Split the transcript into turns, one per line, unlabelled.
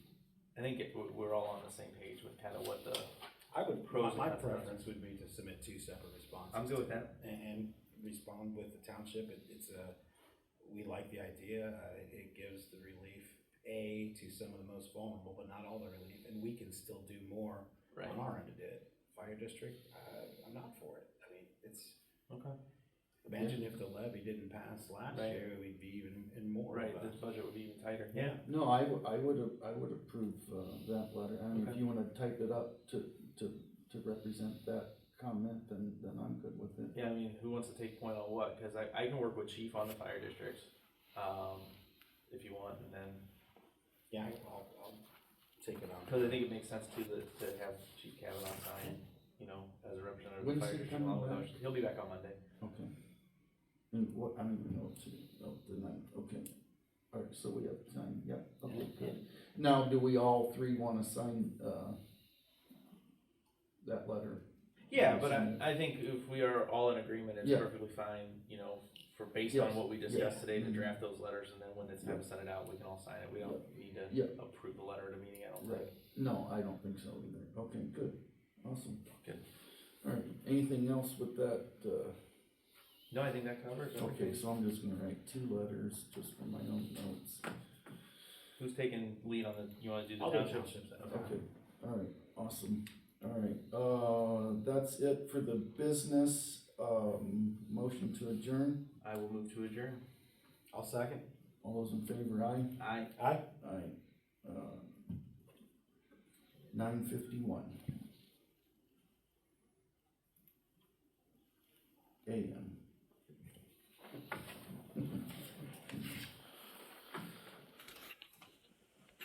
I think it, we- we're all on the same page with kind of what the,
I would,
Pros
my
and cons.
preference would be to submit two separate responses.
I'm good with that.
And, and respond with the township, it, it's a, we like the idea, uh, it- it gives the relief, A, to some of the most vulnerable, but not all the relief, and we can still do more
right?
on our end to do it. Fire district, uh, I'm not for it, I mean, it's,
Okay.
imagine if the levy didn't pass last
Right.
year, we'd be even, in more of
Right,
a.
this budget would be even tighter.
Yeah,
No, I, w- I would, I would approve uh, that letter, I mean, if
Okay.
you wanna type it up to, to, to represent that comment, then, then I'm good with it.
Yeah, I mean, who wants to take point on what? Because I, I can work with chief on the fire districts, um, if you want, and then,
yeah, I'll, I'll take it on.
because I think it makes sense to the, to have Chief Kavanaugh sign, you know, as a representative of
When's
the fire
he
district. along with
coming
others. He'll be back on Monday.
Okay. And what, I don't even know, it's, oh, the ninth, okay. All right, so we have time, yeah, okay, good. Now, do we all three wanna sign, uh, that letter?
Yeah,
Yeah,
but
so-
I, I think if we are all in agreement, it's
Yeah.
perfectly fine, you know, for based on
Yes,
what we
yeah.
discussed today to
Mhm.
draft those letters and then when it's time to send it out, we can all sign it. We don't need
Yeah.
to approve the letter at a meeting, I don't think.
Right, no, I don't think so either, okay, good, awesome.
Good.
All right, anything else with that, uh?
No, I think that covers
Okay,
it.
so I'm just gonna write two letters just for my own notes.
Who's taking lead on the, you wanna do the
I'll do
township?
townships,
Okay, alright, awesome. Alright, uh, that's it for the business, um, motion to adjourn.
I will move to adjourn.
I'll second.
All those in favor, aye?
Aye.
Aye.
Aye. Nine fifty-one.